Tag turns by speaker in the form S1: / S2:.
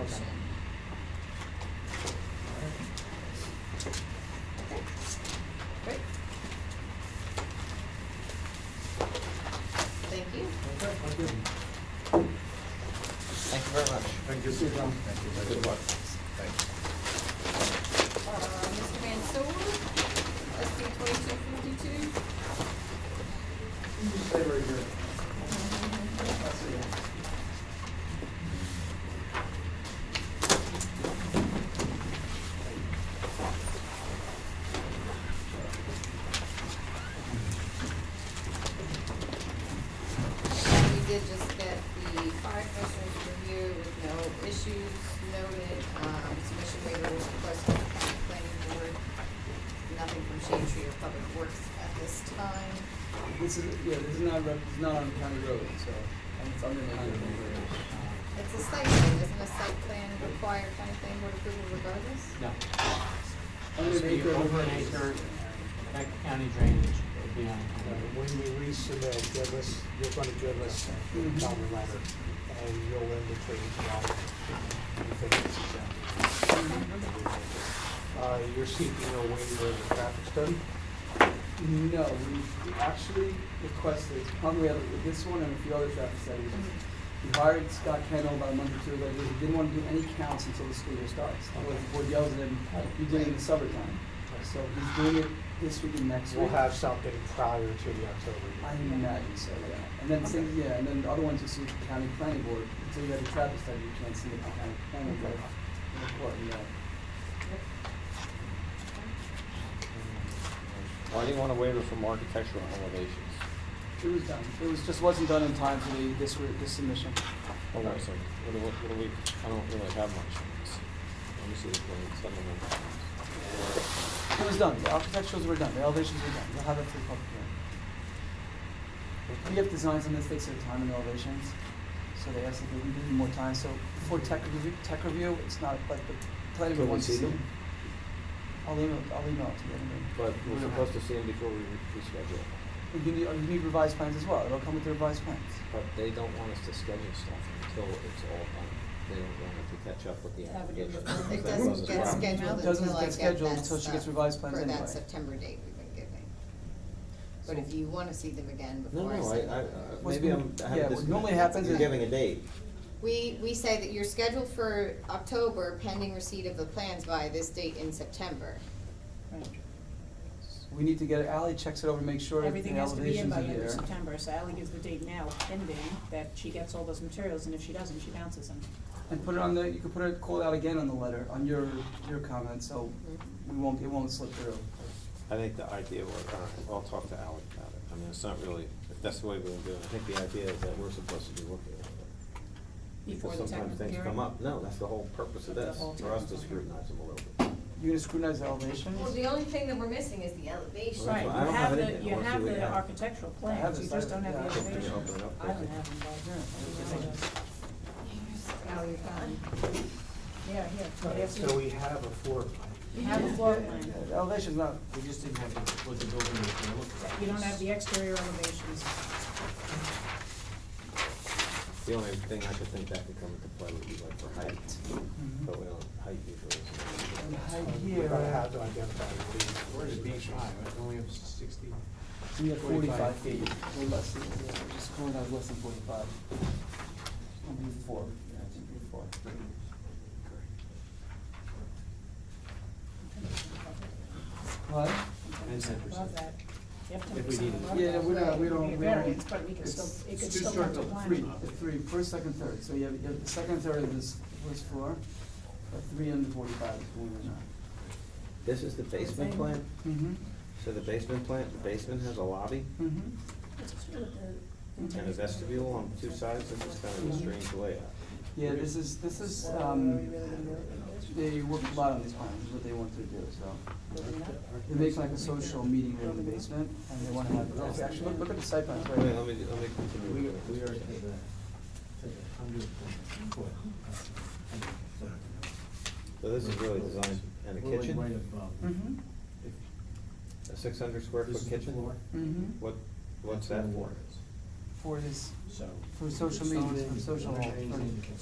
S1: Okay.
S2: Great. Thank you.
S1: Okay, thank you.
S3: Thank you very much.
S1: Thank you, Stephen.
S3: Thank you. Good luck. Thank
S2: Uh, Mr. Van Soul, SC twenty-two fifty-two.
S1: You just stay right here. I see you.
S2: We did just get the fire commissioner's review with no issues noted, um, submission waiver was requested from the county planning board. Nothing from Shade Tree or Public Works at this time.
S4: This is, yeah, this is not, rep- it's not on county road, so it's under the county road.
S2: It's a site plan, doesn't a site plan require county planning board approval regardless?
S5: No,
S4: Under
S5: Must
S4: an
S5: be
S4: acre.
S5: over an
S4: of-
S5: acre. that county drainage would be on.
S6: Uh, When we resubmit, give us, you're gonna give us
S7: Mm-hmm.
S6: a county letter, and you'll indicate, well, you think this is that. Uh, you're seeking a waiver of the traffic study?
S4: No, we actually requested, probably have this one and a few other traffic studies. We hired Scott Kendall about a month or two ago, because he didn't want to do any counts until the school year starts. Otherwise, the board yells at him, you did it in the summertime. So he's doing it this week and next week.
S6: We'll have something prior to the October
S4: I
S6: meeting.
S4: imagine so, yeah. And then same, yeah, and then the other ones you see the county planning board, until you have a traffic study, you can't see it to county planning board. Of course, yeah.
S3: Why do you want a waiver from architectural elevations?
S4: It was done, it was, just wasn't done in time for the, this, re- this submission.
S3: Hold on a second. What do, what what do we, I don't really have much on this. Let me see the plan, some of them.
S4: It was done, the architecturals were done, the elevations were done, you'll have it for the public hearing. We have designs on this, takes their time and elevations, so they asked if we need more time, so before tech review, tech review, it's not like the planning
S3: Can we
S4: board wants to
S3: see
S4: see.
S3: them?
S4: I'll email, I'll email it to you, anyway.
S3: But
S4: We
S3: we're
S4: don't have
S3: supposed
S4: to.
S3: to see them before we re- we schedule.
S4: You need, you need revised plans as well, it'll come with the revised plans.
S3: But they don't want us to schedule stuff until it's all done. They don't want it to catch up with the application.
S2: It
S3: That
S2: doesn't
S3: causes
S2: get
S3: problems.
S2: scheduled
S4: Doesn't
S2: until I
S4: get
S2: get that
S4: scheduled until she
S2: stuff
S4: gets revised plans
S2: For
S4: anyway.
S2: that September date we've been giving. But
S4: So-
S2: if you wanna see them again
S3: No,
S2: before I
S3: no, I,
S2: send
S3: I, uh, I-
S2: them.
S4: What's
S3: maybe
S4: been-
S3: I'm, I
S4: yeah,
S3: have this.
S4: what normally happens
S3: You're
S2: is-
S3: giving a date.
S2: We, we say that you're scheduled for October pending receipt of the plans by this date in September.
S4: We need to get, Ally checks it over, make sure that the
S7: Everything has to be
S4: elevations
S7: in by
S4: are
S7: the end of
S4: there.
S7: September, so Ally gives the date now pending that she gets all those materials, and if she doesn't, she bounces them.
S4: And put it on the, you could put it, call it out again on the letter, on your, your comment, so we won't, it won't slip through.
S8: I think the idea was, I don't know, I'll talk to Alec about it. I mean, it's not really, if that's the way we're doing it, I think the idea is that we're supposed to be looking at it.
S7: Before the
S8: Because
S7: technical
S8: Sometimes things
S7: hearing.
S8: come up. No, that's the whole purpose of
S7: That's
S8: this,
S7: the whole
S8: for us to
S7: technical hearing.
S8: scrutinize them a little bit.
S4: You're gonna scrutinize the elevations?
S9: Well, the only thing that we're missing is the elevation.
S8: Well, that's
S7: Right,
S8: why I
S7: you
S8: don't
S7: have
S8: have
S7: the,
S8: anything. I
S7: you
S8: wanna see
S7: have
S8: what you
S7: the
S8: have.
S7: architectural
S4: have
S7: plans,
S4: the
S7: you just don't
S4: site-
S7: have the
S4: yeah.
S7: elevation.
S8: Can you open it up,
S7: I don't
S8: please?
S7: have them,
S4: Yeah.
S7: but. Yeah, here,
S6: Right, Uh, So we have a floor plan.
S7: you have a floor plan,
S4: Yeah, the Elevation's not,
S5: We just didn't have the, what the building was gonna look like.
S7: you don't have the exterior elevations.
S8: The only thing I could think that could come into play would be like for height,
S4: Mhm.
S8: but we don't, height usually
S4: and the
S8: isn't.
S4: height
S6: We're
S4: here,
S6: gonna Uh, have to identify.
S5: Where's
S6: the
S5: the beach high, right? Only up to sixty.
S4: we have forty-five
S5: 45
S4: feet,
S5: feet.
S4: or less, than- yeah, we're just calling out less than forty-five. It'll be four, yeah, it'll be four. What?
S5: And ten
S7: Above
S5: percent.
S7: that. You have
S5: If we
S7: 10%
S5: needed it.
S7: above
S4: Yeah,
S7: that.
S4: we don't, we
S7: It would be
S4: don't,
S7: a
S4: we don't.
S7: variance, but we could
S4: it's-
S7: still, it could
S5: it's
S7: still
S5: too
S7: come
S5: short
S7: to
S5: of
S7: plan.
S4: Three, the three, first, second, third, so you have, you have the second, third of this first floor, but three under forty-five is one or not.
S8: This is the basement plan,
S4: Mm-hmm,
S8: so the basement plan, the basement has a lobby
S4: mm-hmm.
S8: and a vestibule on two sides, this is kind of a strange layout.
S4: Yeah, this is, this is, um, they worked a lot on these plans, is what they wanted to do, so. They make like a social meeting room in the basement, and they wanna have, actually, look, look at the site plans
S8: Wait, let
S4: right
S8: me, let me
S5: We,
S8: continue.
S5: we are to the, to the hundred foot.
S8: So this is really designed, and a
S5: We're like right
S8: kitchen,
S5: above.
S4: Mm-hmm,
S8: a six hundred square
S5: um, This is
S8: foot
S5: the
S8: kitchen?
S5: floor.
S4: mm-hmm,
S8: What, what's
S5: That's
S8: that
S5: where the
S8: for?
S5: water is.
S4: for this,
S5: So.
S4: for social media, for social,
S5: Stone in,
S4: for
S5: stone in,